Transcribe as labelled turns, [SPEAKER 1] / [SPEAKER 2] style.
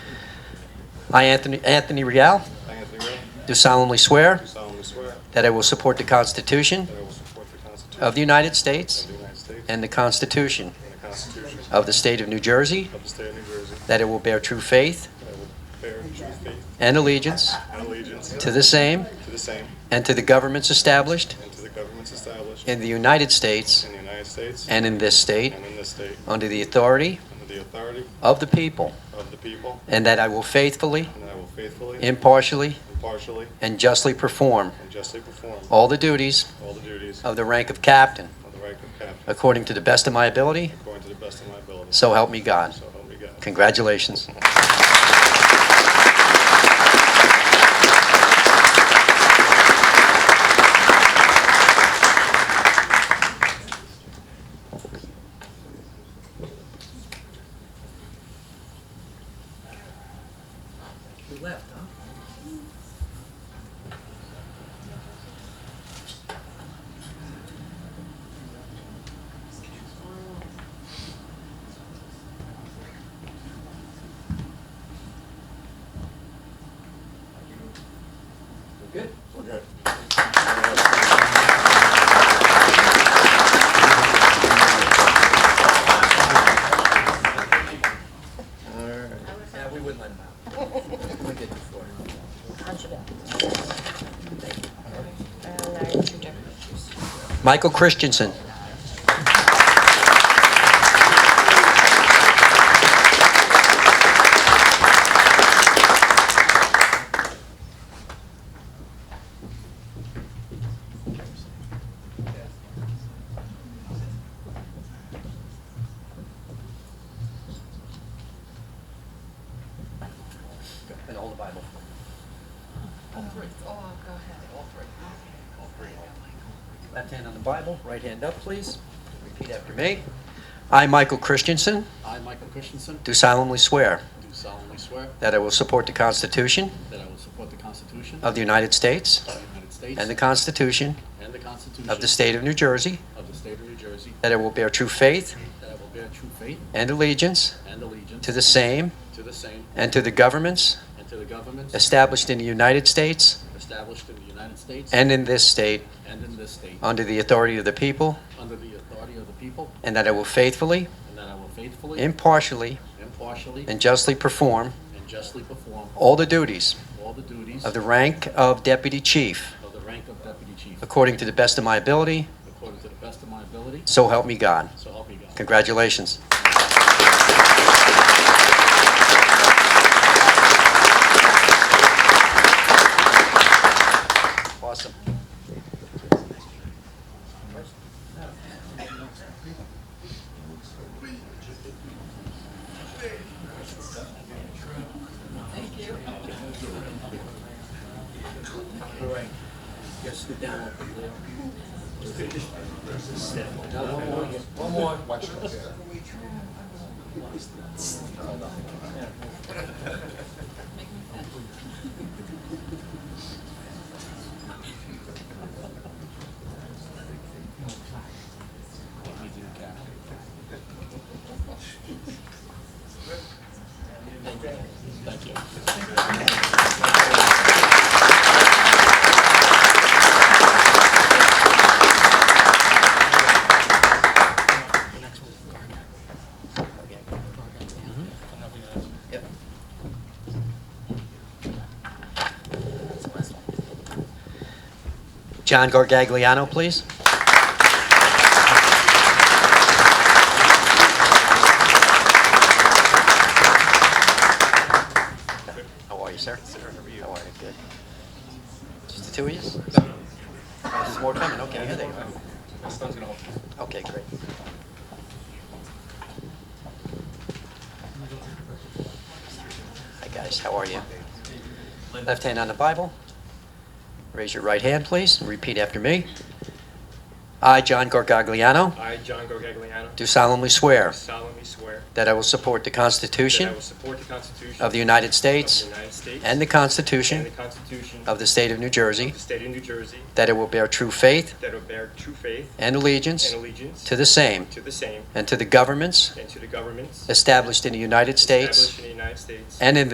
[SPEAKER 1] I, Anthony Anthony Real,
[SPEAKER 2] I, Anthony Ray,
[SPEAKER 1] do solemnly swear
[SPEAKER 2] do solemnly swear
[SPEAKER 1] that I will support the Constitution
[SPEAKER 2] that I will support the Constitution
[SPEAKER 1] of the United States
[SPEAKER 2] of the United States
[SPEAKER 1] and the Constitution
[SPEAKER 2] and the Constitution
[SPEAKER 1] of the State of New Jersey,
[SPEAKER 2] of the State of New Jersey,
[SPEAKER 1] that it will bear true faith
[SPEAKER 2] that I will bear true faith
[SPEAKER 1] and allegiance
[SPEAKER 2] and allegiance
[SPEAKER 1] to the same
[SPEAKER 2] to the same
[SPEAKER 1] and to the governments established
[SPEAKER 2] and to the governments established
[SPEAKER 1] in the United States
[SPEAKER 2] in the United States
[SPEAKER 1] and in this state
[SPEAKER 2] and in this state,
[SPEAKER 1] under the authority
[SPEAKER 2] under the authority
[SPEAKER 1] of the people,
[SPEAKER 2] of the people,
[SPEAKER 1] and that I will faithfully,
[SPEAKER 2] and that I will faithfully,
[SPEAKER 1] impartially,
[SPEAKER 2] impartially,
[SPEAKER 1] and justly perform
[SPEAKER 2] and justly perform
[SPEAKER 1] all the duties
[SPEAKER 2] all the duties
[SPEAKER 1] of the rank of captain
[SPEAKER 2] of the rank of captain
[SPEAKER 1] according to the best of my ability,
[SPEAKER 2] according to the best of my ability.
[SPEAKER 1] so help me God.
[SPEAKER 2] So help me God.
[SPEAKER 1] Congratulations. We left, huh? Good. Yeah, we wouldn't let him out. We did before. Michael Christensen. And hold the Bible.
[SPEAKER 3] All three. Oh, go ahead. All three. All three.
[SPEAKER 1] Left hand on the Bible, right hand up, please. Repeat after me. I, Michael Christensen,
[SPEAKER 4] I, Michael Christensen,
[SPEAKER 1] do solemnly swear
[SPEAKER 4] do solemnly swear
[SPEAKER 1] that I will support the Constitution
[SPEAKER 4] that I will support the Constitution
[SPEAKER 1] of the United States
[SPEAKER 4] of the United States
[SPEAKER 1] and the Constitution
[SPEAKER 4] and the Constitution
[SPEAKER 1] of the State of New Jersey,
[SPEAKER 4] of the State of New Jersey,
[SPEAKER 1] that I will bear true faith
[SPEAKER 4] that I will bear true faith
[SPEAKER 1] and allegiance
[SPEAKER 4] and allegiance
[SPEAKER 1] to the same
[SPEAKER 4] to the same
[SPEAKER 1] and to the governments
[SPEAKER 4] and to the governments
[SPEAKER 1] established in the United States
[SPEAKER 4] established in the United States
[SPEAKER 1] and in this state
[SPEAKER 4] and in this state
[SPEAKER 1] under the authority of the people,
[SPEAKER 4] under the authority of the people,
[SPEAKER 1] and that I will faithfully,
[SPEAKER 4] and that I will faithfully,
[SPEAKER 1] impartially,
[SPEAKER 4] impartially,
[SPEAKER 1] and justly perform
[SPEAKER 4] and justly perform
[SPEAKER 1] all the duties
[SPEAKER 4] all the duties
[SPEAKER 1] of the rank of Deputy Chief
[SPEAKER 4] of the rank of Deputy Chief
[SPEAKER 1] according to the best of my ability,
[SPEAKER 4] according to the best of my ability,
[SPEAKER 1] so help me God.
[SPEAKER 4] so help me God.
[SPEAKER 1] Congratulations. Awesome. All right. Yes, sit down. Now, one more. One more. John Gargagliano, please. How are you, sir? How are you? Good. Just the two of you? Oh, There's more coming, okay, here they are. Okay, great. Hi, guys, how are you? Left hand on the Bible. Raise your right hand, please, and repeat after me. I, John Gargagliano,
[SPEAKER 5] I, John Gorgagliano,
[SPEAKER 1] do solemnly swear
[SPEAKER 5] solemnly swear
[SPEAKER 1] that I will support the
[SPEAKER 5] that I
[SPEAKER 1] Constitution
[SPEAKER 5] will support the Constitution
[SPEAKER 1] of the United
[SPEAKER 5] of the
[SPEAKER 1] States
[SPEAKER 5] United States
[SPEAKER 1] and the
[SPEAKER 5] and the
[SPEAKER 1] Constitution
[SPEAKER 5] Constitution
[SPEAKER 1] of the State of New Jersey,
[SPEAKER 5] the State of New Jersey,
[SPEAKER 1] that I will bear true faith
[SPEAKER 5] that will bear true faith
[SPEAKER 1] and allegiance
[SPEAKER 5] and allegiance
[SPEAKER 1] to the same
[SPEAKER 5] to the same
[SPEAKER 1] and to the governments
[SPEAKER 5] and to the governments
[SPEAKER 1] established in the United States
[SPEAKER 5] established in the United States
[SPEAKER 1] and in